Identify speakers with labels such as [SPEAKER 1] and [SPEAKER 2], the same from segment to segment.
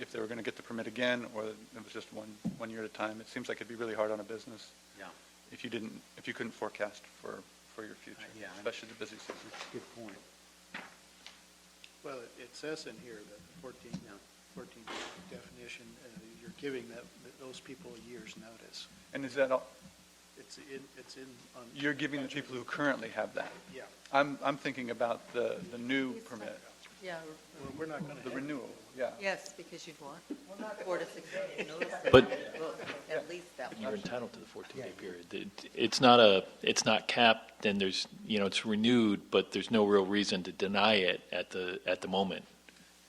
[SPEAKER 1] if they were going to get the permit again, or it was just one, one year at a time. It seems like it'd be really hard on a business
[SPEAKER 2] Yeah,
[SPEAKER 1] if you didn't, if you couldn't forecast for, for your future,
[SPEAKER 2] Uh, yeah.
[SPEAKER 1] especially the busy season.
[SPEAKER 2] good point.
[SPEAKER 3] Well, it- it says in here that the 14,
[SPEAKER 2] Yeah.
[SPEAKER 3] 14 definition, uh, you're giving that, that those people a year's notice.
[SPEAKER 1] And is that all,
[SPEAKER 3] It's in, it's in on.
[SPEAKER 1] you're giving the people who currently have that?
[SPEAKER 3] Yeah,
[SPEAKER 1] I'm, I'm thinking about the, the new permit,
[SPEAKER 4] Yeah,
[SPEAKER 3] we're- we're not going to.
[SPEAKER 1] the renewal, yeah.
[SPEAKER 4] yes, because you'd want four to six months notice.
[SPEAKER 5] But-
[SPEAKER 4] Well, At least that
[SPEAKER 5] You're
[SPEAKER 4] much.
[SPEAKER 5] entitled to the 14-day period. It- It's not a, it's not capped, and there's, you know, it's renewed, but there's no real reason to deny it at the, at the moment.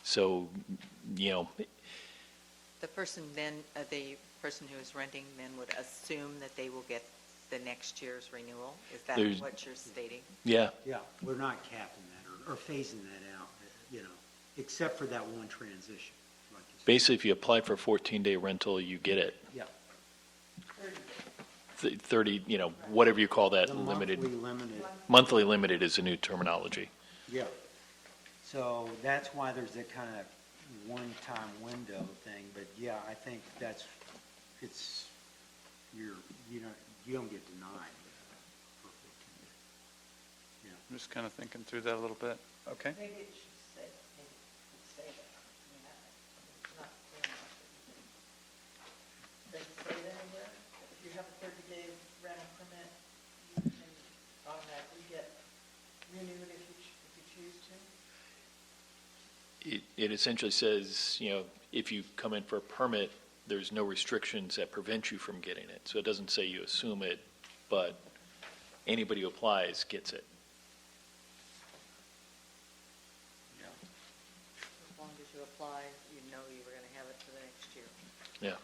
[SPEAKER 5] So, you know,
[SPEAKER 4] The person then, uh, the person who is renting then would assume that they will get the next year's renewal? Is that
[SPEAKER 5] There's-
[SPEAKER 4] what you're stating?
[SPEAKER 5] yeah,
[SPEAKER 2] Yeah, we're not capping that or, or phasing that out, uh, you know, except for that one transition. like you said.
[SPEAKER 5] basically, if you apply for a 14-day rental, you get it.
[SPEAKER 2] Yeah.
[SPEAKER 5] Th- 30, you know, whatever you call that,
[SPEAKER 2] The
[SPEAKER 5] limited,
[SPEAKER 2] monthly limited,
[SPEAKER 5] monthly limited is a new terminology.
[SPEAKER 2] yeah. So that's why there's that kind of one-time window thing, but yeah, I think that's, it's, you're, you don't, you don't get denied. for 14 days.
[SPEAKER 1] I'm just kind of thinking through that a little bit, okay?
[SPEAKER 4] Maybe it should say, maybe it should say that. Does it say that anywhere? If you have a thirty-day rental permit, you can automatically get renewed if you, if you choose to?
[SPEAKER 5] It, it essentially says, you know, if you come in for a permit, there's no restrictions that prevent you from getting it. So it doesn't say you assume it, but anybody who applies gets it.
[SPEAKER 4] As long as you apply, you know you were gonna have it for the next year.
[SPEAKER 5] Yeah.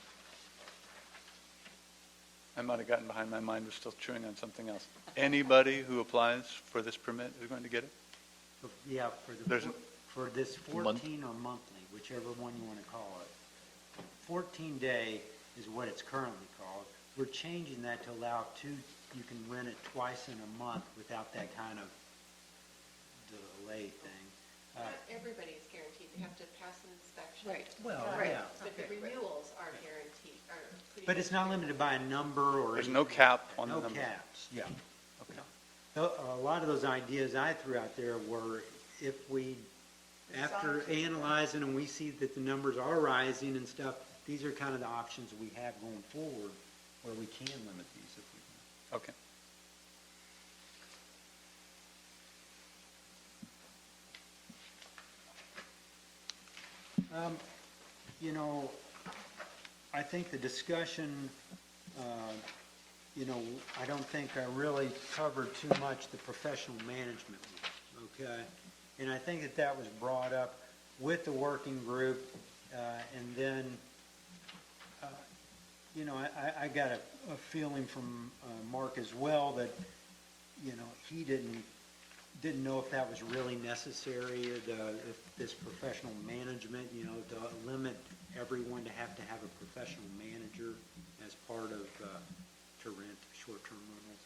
[SPEAKER 1] I might have gotten behind, my mind was still chewing on something else. Anybody who applies for this permit is going to get it?
[SPEAKER 2] But, Yeah, for the,
[SPEAKER 1] There's-
[SPEAKER 2] four- for this
[SPEAKER 5] Month-
[SPEAKER 2] 14 or monthly, whichever one you want to call it. 14-day is what it's currently called. We're changing that to allow two, you can rent it twice in a month without that kind of delay thing. Uh,
[SPEAKER 6] Not everybody is guaranteed, they have to pass an inspection. Right.
[SPEAKER 2] Well, yeah.
[SPEAKER 6] But the renewals are guaranteed, are pretty.
[SPEAKER 2] But it's not limited by a number
[SPEAKER 1] There's
[SPEAKER 2] or. anything
[SPEAKER 1] no
[SPEAKER 2] like
[SPEAKER 1] cap
[SPEAKER 2] that.
[SPEAKER 1] on the
[SPEAKER 2] No
[SPEAKER 1] number.
[SPEAKER 2] caps, yeah.
[SPEAKER 1] Okay.
[SPEAKER 2] A a lot of those ideas I threw out there were if we, after analyzing and we see that the numbers are rising and stuff, these are kind of the options we have going forward where we can limit these if we can.
[SPEAKER 1] Okay.
[SPEAKER 2] Um, You know, I think the discussion, uh, you know, I don't think I really covered too much the professional management, one, okay? And I think that that was brought up with the working group, uh, and then, uh, you know, I- I, I got a a feeling from uh, Mark as well that, you know, he didn't didn't know if that was really necessary, the, if this professional management, you know, to limit everyone to have to have a professional manager as part of, uh, to rent short-term rentals.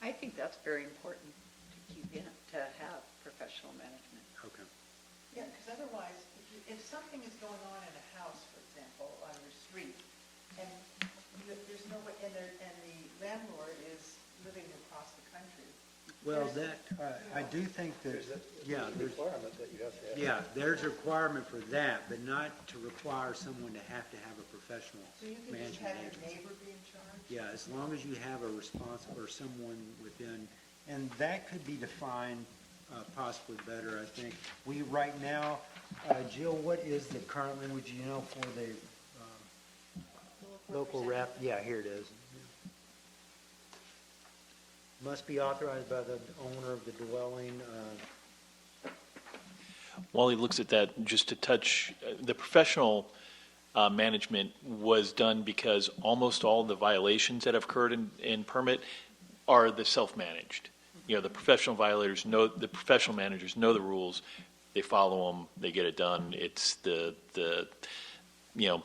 [SPEAKER 7] I think that's very important to keep in, to have professional management.
[SPEAKER 2] Okay.
[SPEAKER 8] Yeah, because otherwise, if you, if something is going on in a house, for example, on your street, and you- there's no way, and there, and the landlord is living across the country,
[SPEAKER 2] Well, that, uh, I do think that,
[SPEAKER 3] There's that
[SPEAKER 2] yeah, there's,
[SPEAKER 3] requirement that you have to have.
[SPEAKER 2] yeah, there's a requirement for that, but not to require someone to have to have a professional
[SPEAKER 8] so you can just
[SPEAKER 2] management
[SPEAKER 8] have your
[SPEAKER 2] agency.
[SPEAKER 8] neighbor be in charge.
[SPEAKER 2] Yeah, as long as you have a responsible or someone within, and that could be defined uh, possibly better, I think. We, right now, uh, Jill, what is the current language, you know, for the um, local rep? Yeah, here it is. Must be authorized by the owner of the dwelling, uh,
[SPEAKER 5] While he looks at that, just to touch, uh, the professional uh, management was done because almost all the violations that have occurred in, in permit are the self-managed. You know, the professional violators know, the professional managers know the rules, they follow them, they get it done. It's the, the, you know,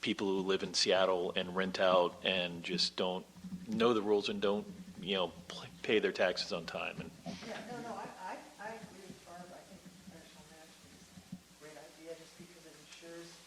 [SPEAKER 5] people who live in Seattle and rent out and just don't know the rules and don't, you know, pl- pay their taxes on time. And
[SPEAKER 8] Yeah, no, no, I